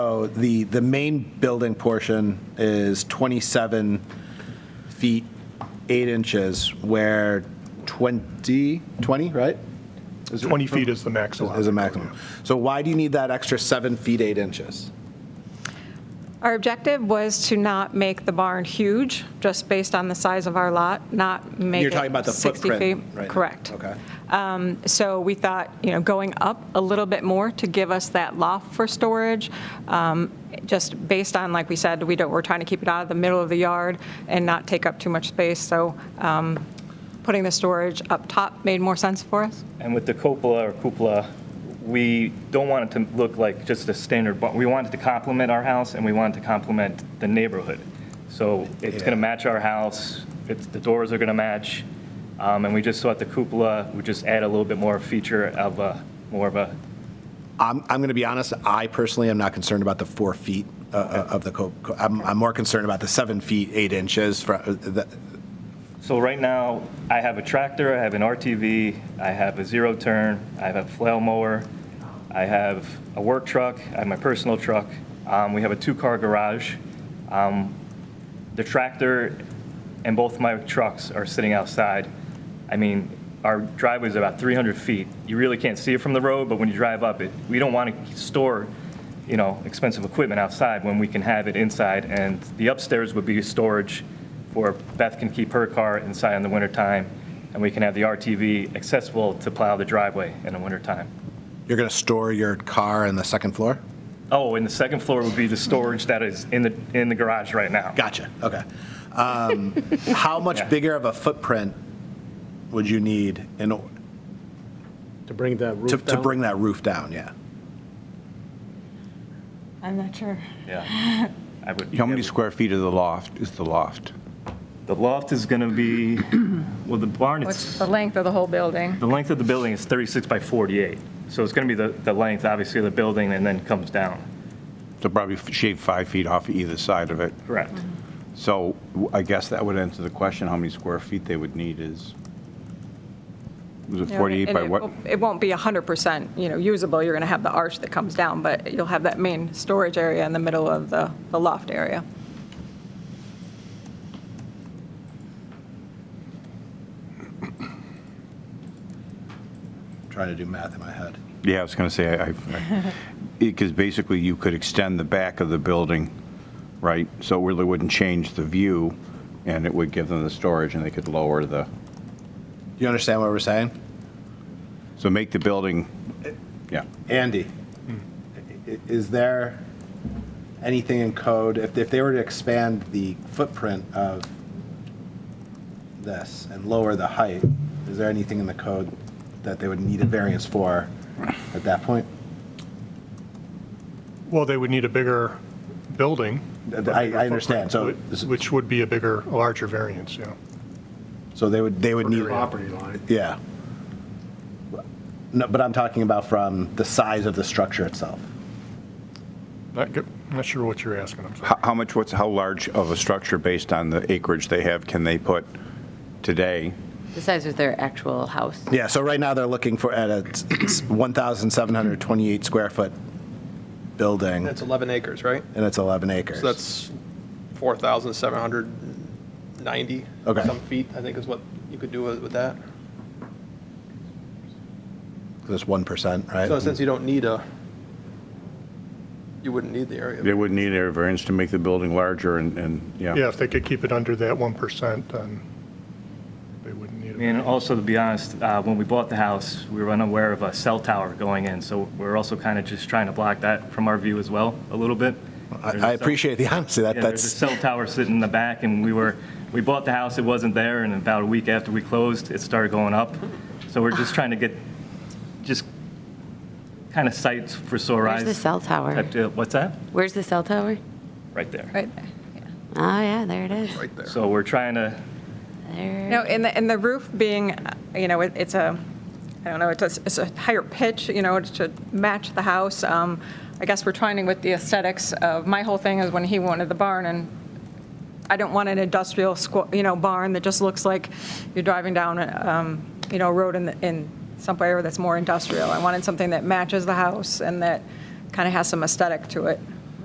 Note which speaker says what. Speaker 1: So Oh, the, the main building portion is 27 feet, 8 inches, where 20, 20, right? Is it-
Speaker 2: 20 feet is the max allowed.
Speaker 1: Is a maximum. So why do you need that extra 7 feet, 8 inches?
Speaker 3: Our objective was to not make the barn huge, just based on the size of our lot, not make
Speaker 1: You're
Speaker 3: it 60 feet.
Speaker 1: talking about the footprint right now.
Speaker 3: Correct.
Speaker 1: Okay.
Speaker 3: So we thought, you know, going up a little bit more to give us that loft for storage, um, just based on, like we said, we don't, we're trying to keep it out of the middle of the yard and not take up too much space, so um, putting the storage up top made more sense for us.
Speaker 4: And with the cupola or cupola, we don't want it to look like just a standard barn. We want it to complement our house, and we want it to complement the neighborhood. So it's going to match our house, it's, the doors are going to match, um, and we just thought the cupola would just add a little bit more feature of a, more of a,
Speaker 1: I'm, I'm going to be honest, I personally am not concerned about the 4 feet uh, uh, of the, co- co- I'm, I'm more concerned about the 7 feet, 8 inches, fro- uh, the-
Speaker 4: so right now, I have a tractor, I have an RTV, I have a zero turn, I have a flail mower, I have a work truck, I have my personal truck, um, we have a two-car garage. the tractor and both my trucks are sitting outside. I mean, our driveway's about 300 feet. You really can't see it from the road, but when you drive up it, we don't want to store, you know, expensive equipment outside when we can have it inside. And the upstairs would be storage for Beth can keep her car inside in the wintertime, and we can have the RTV accessible to plow the driveway in the wintertime.
Speaker 1: you're going to store your car in the second floor?
Speaker 4: Oh, and the second floor would be the storage that is in the, in the garage right now.
Speaker 1: Gotcha, okay. Um, How much bigger of a footprint would you need in, o-
Speaker 5: To bring that
Speaker 1: to,
Speaker 5: roof
Speaker 1: to
Speaker 5: down?
Speaker 1: bring that roof down, yeah?
Speaker 3: I'm not sure.
Speaker 4: Yeah. I would-
Speaker 6: How many square feet of the loft is the loft?
Speaker 4: The loft is going to be, well, the barn,
Speaker 3: What's
Speaker 4: it's,
Speaker 3: the
Speaker 4: the
Speaker 3: length of the whole building?
Speaker 4: length of the building is 36 by 48. So it's going to be the, the length, obviously, of the building and then comes down.
Speaker 6: So probably f- shave five feet off either side of it.
Speaker 4: Correct.
Speaker 6: So w- I guess that would answer the question, how many square feet they would need is, was it 48
Speaker 3: And
Speaker 6: by
Speaker 3: it
Speaker 6: what?
Speaker 3: won't- It won't be 100%, you know, usable. You're going to have the arch that comes down, but you'll have that main storage area in the middle of the the loft area.
Speaker 1: Trying to do math in my head.
Speaker 6: Yeah, I was going to say, I, because basically you could extend the back of the building, right? So it really wouldn't change the view, and it would give them the storage, and they could lower the,
Speaker 1: You understand what we're saying?
Speaker 6: so make the building, yeah.
Speaker 1: Andy, i- i- is there anything in code, if, if they were to expand the footprint of this and lower the height, is there anything in the code that they would need a variance for at that point?
Speaker 2: Well, they would need a bigger building.
Speaker 1: I-
Speaker 2: a bigger
Speaker 1: I understand, so-
Speaker 2: footprint, whi- Which would be a bigger, a larger variance, yeah.
Speaker 1: So they would, they would need.
Speaker 5: Property line.
Speaker 1: Yeah. No, but I'm talking about from the size of the structure itself.
Speaker 2: Not, good- not sure what you're asking, I'm sorry.
Speaker 6: How how much, what's, how large of a structure based on the acreage they have can they put today?
Speaker 7: The size of their actual house.
Speaker 1: Yeah, so right now they're looking for at a 1,728 square foot building,
Speaker 8: That's 11 acres, right?
Speaker 1: and it's 11 acres.
Speaker 8: So that's 4,790
Speaker 1: Okay.
Speaker 8: some feet, I think is what you could do with with that.
Speaker 1: That's 1%, right?
Speaker 8: So since you don't need a, you wouldn't need the area.
Speaker 6: They wouldn't need air variance to make the building larger and, and,
Speaker 2: Yeah,
Speaker 6: yeah.
Speaker 2: if they could keep it under that 1%, then they wouldn't need it.
Speaker 4: And also, to be honest, uh, when we bought the house, we were unaware of a cell tower going in, so we're also kind of just trying to block that from our view as well, a little bit. There's a
Speaker 1: I I
Speaker 4: cell-
Speaker 1: appreciate the honesty, that,
Speaker 4: Yeah, there's a
Speaker 1: that's,
Speaker 4: cell tower sitting in the back, and we were, we bought the house, it wasn't there, and about a week after we closed, it started going up. So we're just trying to get, just kind of sights for sore eyes.
Speaker 7: Where's the cell tower?
Speaker 4: type deal. What's that?
Speaker 7: Where's the cell tower?
Speaker 4: Right there.
Speaker 3: Right there.
Speaker 7: Oh, yeah, there it is.
Speaker 8: Right there.
Speaker 4: So we're trying to,
Speaker 7: There.
Speaker 3: No, and the, and the roof being, uh, you know, it- it's a, I don't know, it's a, it's a higher pitch, you know, to match the house. Um, I guess we're trying to with the aesthetics of, my whole thing is when he wanted the barn, and I don't want an industrial squ, you know, barn that just looks like you're driving down, um, you know, a road in, the- in some area that's more industrial. I wanted something that matches the house and that kind of has some aesthetic to it.